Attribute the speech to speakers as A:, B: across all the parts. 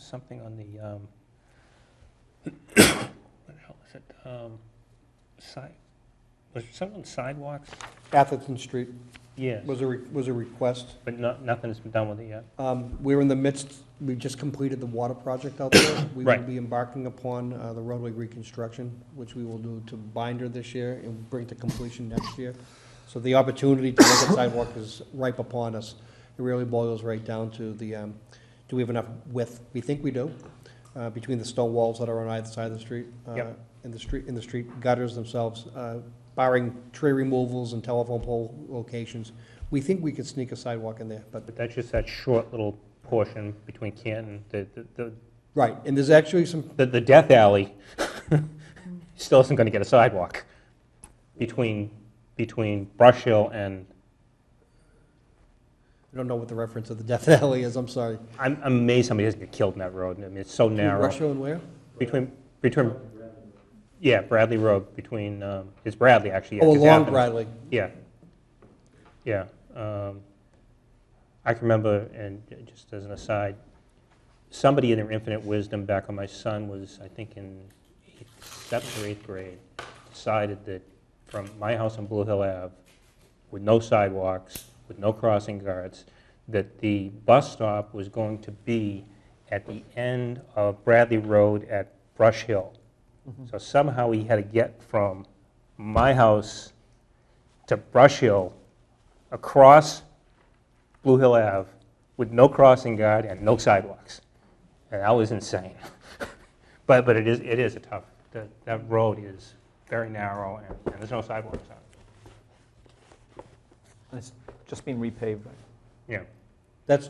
A: something on the, um, what the hell is it? Um, Side, was there something on sidewalks?
B: Atherton Street
A: Yes,
B: was a, re- was a request.
A: but not, nothing's been done with it yet.
B: Um, We're in the midst, we just completed the water project out there. We will
A: Right.
B: be embarking upon uh, the roadway reconstruction, which we will do to binder this year and bring to completion next year. So the opportunity to look at sidewalk is ripe upon us. It really boils right down to the, um, do we have enough width? We think we do, uh, between the stone walls that are on either side of the street. uh,
A: Yep.
B: And the street, and the street gutters themselves, uh, barring tree removals and telephone pole locations. We think we could sneak a sidewalk in there, but
A: But that's just that short little portion between Canton, the, the- the,
B: Right, and there's actually some,
A: the, the death alley still isn't gonna get a sidewalk between, between Brush Hill and,
B: I don't know what the reference of the Death Alley is, I'm sorry.
A: I'm I'm amazed somebody doesn't get killed in that road. I mean, it's so narrow.
B: Russia and where?
A: Between, between, yeah, Bradley Road, between, um, it's Bradley, actually. yeah,
B: Oh,
A: 'cause
B: along
A: Athens-
B: Bradley.
A: Yeah. Yeah. um, I can remember, and j- just as an aside, somebody in their infinite wisdom back when my son was, I think, in eighth- seventh or eighth grade, decided that from my house on Blue Hill Ave, with no sidewalks, with no crossing guards, that the bus stop was going to be at the end of Bradley Road at Brush Hill. So somehow he had to get from my house to Brush Hill, across Blue Hill Ave, with no crossing guard and no sidewalks. And that was insane. But, but it is, it is a tough, that, that road is very narrow, and and there's no sidewalks on it.
C: And It's just being repaved, right?
A: Yeah.
B: That's,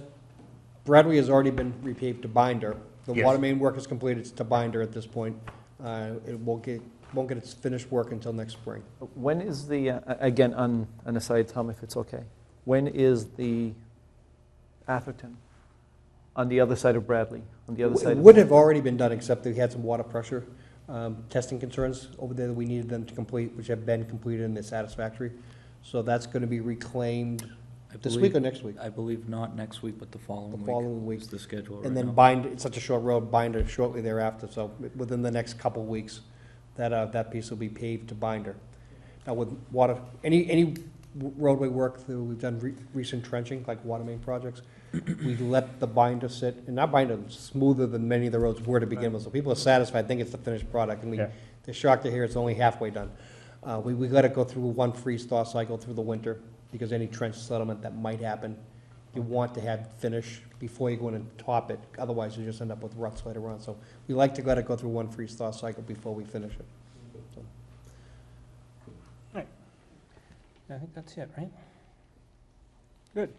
B: Bradley has already been repaved to binder. The
A: Yes.
B: water main work is completed, it's to binder at this point. Uh, It won't get, won't get its finished work until next spring.
C: When is the, uh, a- again, on an aside, Tom, if it's okay, when is the Atherton on the other side of Bradley, on the other
B: It
C: side? of-
B: would have already been done, except they had some water pressure um, testing concerns over there that we needed them to complete, which have been completed and they're satisfactory. So that's going to be reclaimed
D: I
B: this week or
D: believe-
B: next week?
D: I believe not next week, but the following
B: The
D: week.
B: following week.
D: It's the schedule right
B: And then
D: now.
B: bind, it's such a short road, binder shortly thereafter, so within the next couple weeks, that, uh, that piece will be paved to binder. Now with water, any, any roadway work that we've done, re- recent trenching, like water main projects, we let the binder sit, and that binder is smoother than many of the roads were to begin with, so people are satisfied, think it's the finished product, and we,
A: Yeah.
B: they're shocked to hear it's only halfway done. Uh, we, we let it go through one freeze-thaw cycle through the winter, because any trench settlement that might happen, you want to have finish before you go in and top it, otherwise you just end up with ruts later on. So we like to let it go through one freeze-thaw cycle before we finish it.
A: I think that's it, right? Good.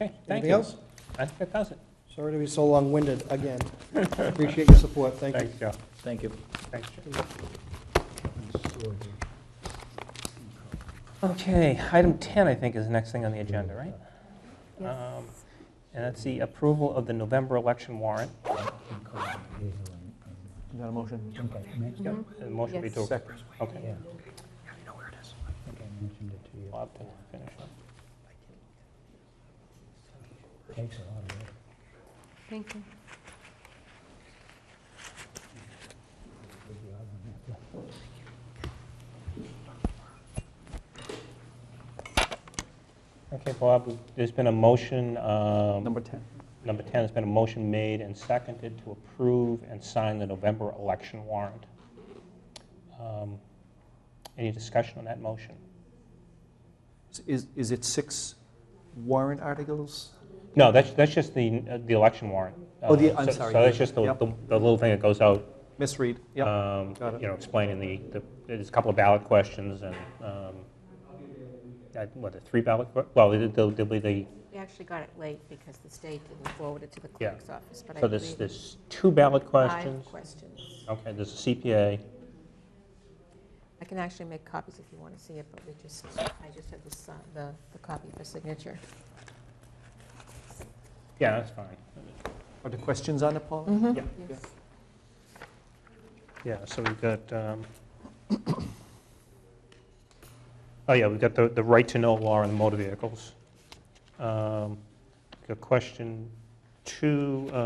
A: Okay, thank
B: Anything
A: you.
B: else?
A: I think that does it.
B: Sorry to be so long-winded again. Appreciate your support, thank you.
A: Thanks, Joe.
D: Thank you.
A: Thanks, Joe. Okay, item 10, I think, is the next thing on the agenda, right? Um, And that's the approval of the November election warrant.
C: Is that a motion?
A: The motion be to,
C: Second.
A: okay.
E: Takes
A: Bob to finish up.
E: a lot of work.
F: Thank you.
A: Okay, Bob, there's been a motion, um,
C: Number 10.
A: number 10, there's been a motion made and seconded to approve and sign the November election warrant. Um, Any discussion on that motion?
C: Is, is it six warrant articles?
A: No, that's, that's just the, uh, the election warrant.
C: Oh, the-
A: Uh,
C: I'm
A: so-
C: sorry,
A: So that's
C: yeah,
A: just the,
C: yep.
A: the the little thing that goes out,
C: Misread, yeah.
A: um,
C: got it.
A: you know, explaining the, the there's a couple of ballot questions and, um, I- what, the three ballot, que- well, there- there'll there'll be the,
F: We actually got it late because the state didn't forward it to the
A: Yeah.
F: clerk's office, but I
A: so there's,
F: believe
A: there's two ballot
F: five
A: questions.
F: questions.
A: Okay, there's a CPA.
F: I can actually make copies if you want to see it, but we just, I just have the, si- the, the copy for signature.
A: Yeah, that's fine.
C: Are the questions on it, Paul?
A: Yeah.
F: Yes.
A: Yeah, so we've got, um, oh yeah, we've got the, the right to know law on motor vehicles. Um, Got question two